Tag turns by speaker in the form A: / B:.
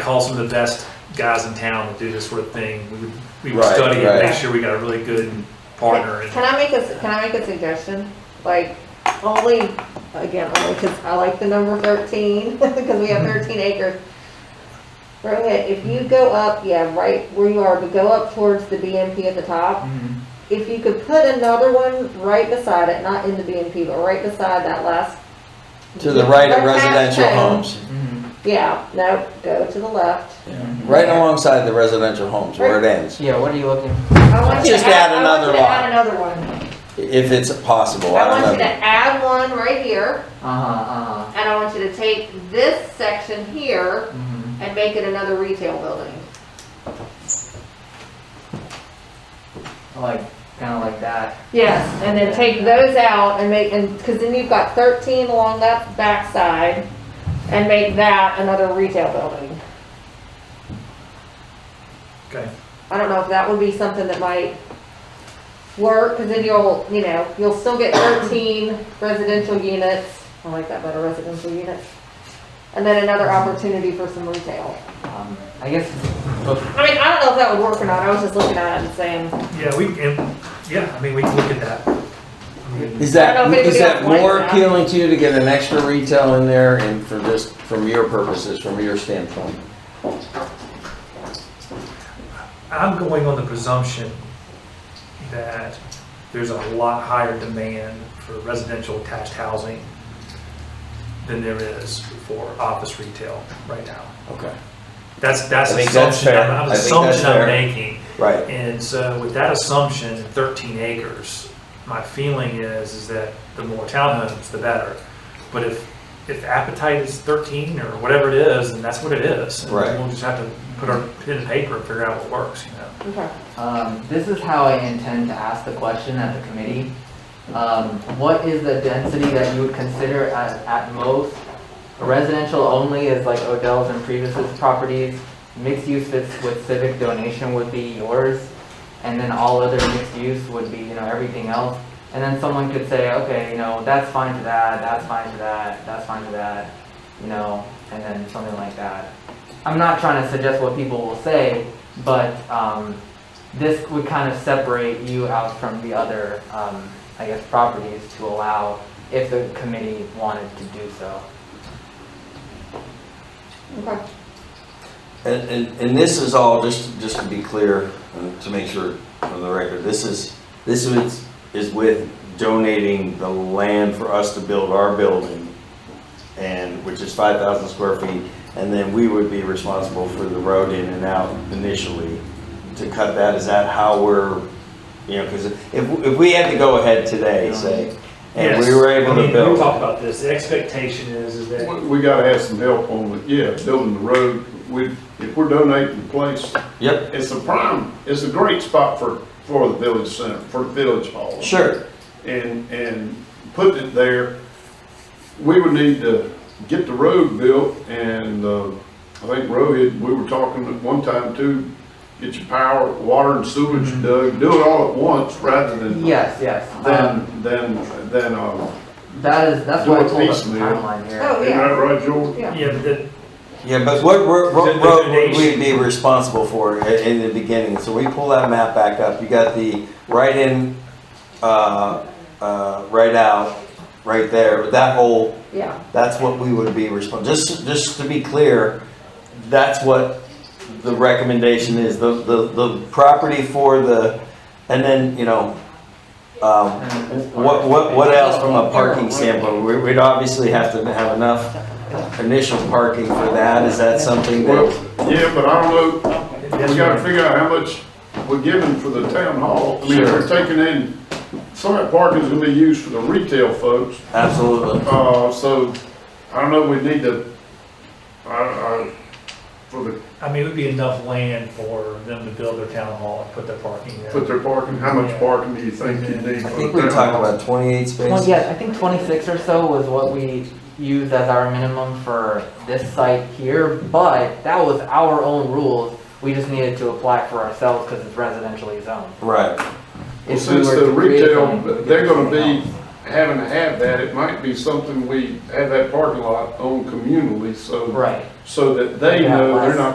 A: call some of the best guys in town that do this sort of thing. We would, we would
B: Right,
A: study it,
B: right.
A: make sure we got a really good partner. and-
C: Can I make a, can I make a suggestion? Like, only, again, only because I like the number thirteen, because we have thirteen acres. Rohit, if you go up, yeah, right where you are, but go up towards the BMP at the top,
A: Mhm.
C: if you could put another one right beside it, not in the BMP, but right beside that last.
B: To the right of
C: Right past
B: residential
C: home.
B: homes,
A: Mhm.
D: Mm-hmm.
C: Yeah, no, go to the left.
B: right alongside the residential homes where it ends,
D: Yeah, what are you looking?
C: I want you to
B: Just add
C: I want you
B: another
C: to
B: lot.
C: Add another one.
B: if it's possible,
C: I
B: I
C: want you
B: don't
C: to
B: know.
C: add one right here.
D: Uh-huh, uh-huh.
C: And I want you to take this section here
D: Mhm.
C: and make it another retail building.
D: Like, kinda like that.
C: Yes. And then take those out and make, and, cause then you've got thirteen along that backside and make that another retail building.
A: Okay.
C: I don't know if that would be something that might work, cause then you'll, you know, you'll still get thirteen residential units. I like that better, residential units. And then another opportunity for some retail.
D: Um, I guess,
C: I mean, I don't know if that would work or not. I was just looking at it and saying,
A: Yeah, we, and, yeah, I mean, we can look at that. I mean,
B: Is
C: I
B: that,
C: don't know if
B: is
C: anybody
B: that
C: else likes
B: more
C: that.
B: appealing to you to get an extra retail in there and for just, from your purposes, from your standpoint?
A: I'm going on the presumption that there's a lot higher demand for residential attached housing than there is for office retail right now.
B: Okay,
A: That's, that's
B: I
A: an
B: think that's
A: assumption,
B: fair.
A: I'm- I'm
B: I think
A: assumption
B: that's
A: I'm
B: fair.
A: making.
B: right,
A: And so with that assumption, thirteen acres, my feeling is, is that the more townhomes, the better. But if, if appetite is thirteen or whatever it is, then that's what it is. And
B: Right.
A: We'll just have to put our pen and paper and figure out what works, you know?
C: okay.
D: um, this is how I intend to ask the question at the committee. Um, what is the density that you would consider at, at most? Residential only is like Odell's and Priebus's properties, mixed use fits with civic donation would be yours, and then all other mixed use would be, you know, everything else. And then someone could say, okay, you know, that's fine to that, that's fine to that, that's fine to that, you know, and then something like that. I'm not trying to suggest what people will say, but, um, this would kind of separate you out from the other, um, I guess, properties to allow if the committee wanted to do so.
C: Okay.
B: and, and, and this is all, just, just to be clear, uh, to make sure on the record, this is, this is, is with donating the land for us to build our building, and, which is five thousand square feet, and then we would be responsible for the road in and out initially to cut that, is that how we're, you know, because if, if we had to go ahead today, say, and we
A: Yes.
B: were able
A: I mean,
B: to build.
A: We talked about this, the expectation is, is that,
E: We gotta have some help on the, yeah, building the road. We, if we're donating the place,
B: Yep,
E: it's a prime, it's a great spot for, for the village center, for the village hall.
B: sure,
E: And, and putting it there, we would need to get the road built and, uh, I think Rohit, we were talking at one time too, get your power, water and sewage dug, do it all at once rather than,
D: Yes, yes. Um,
E: than, than, than, uh,
D: that is, that's why I told us the
E: Piecemeal.
D: timeline here.
C: Oh,
E: isn't
C: yeah,
E: that right, George?
C: yeah.
A: yeah, that,
B: yeah, but what, what
A: The-
B: what
A: the
B: road would we
A: donation.
B: be responsible for i- in the beginning? So we pull that map back up, you got the right in, uh, uh, right out, right there, that whole,
C: Yeah,
B: that's what we would be responsible, just, just to be clear, that's what the recommendation is, the, the, the property for the, and then, you know, um, What, what, what else from a parking standpoint? We- We'd obviously have to have enough initial parking for that. Is that something
E: Well,
B: that,
E: yeah, but I don't know,
A: that's
E: We gotta
A: what-
E: figure out how much we're giving for the town hall. I mean, if
B: Sure.
E: we're taking in, some of that parking's gonna be used for the retail folks,
B: absolutely.
E: uh, so, I don't know, we need to, I, I, for the,
A: I mean, it would be enough land for them to build their town hall and put their parking there.
E: put their parking, how much parking do you think you need
B: I
E: for
B: think we
E: the town
B: talked
E: hall?
B: about 28
D: Well,
B: spaces.
D: yeah, I think twenty-six or so was what we used as our minimum for this site here, but that was our own rules. We just needed to apply for ourselves because it's residentially zoned.
B: Right.
D: If we
E: Since
D: were
E: the
D: to create
E: retail,
D: something, we could
E: they're
D: do
E: gonna
D: something
E: be having to have that, it might be something we have that parking lot own communally,
D: else.
E: so,
D: Right.
E: so that they know they're not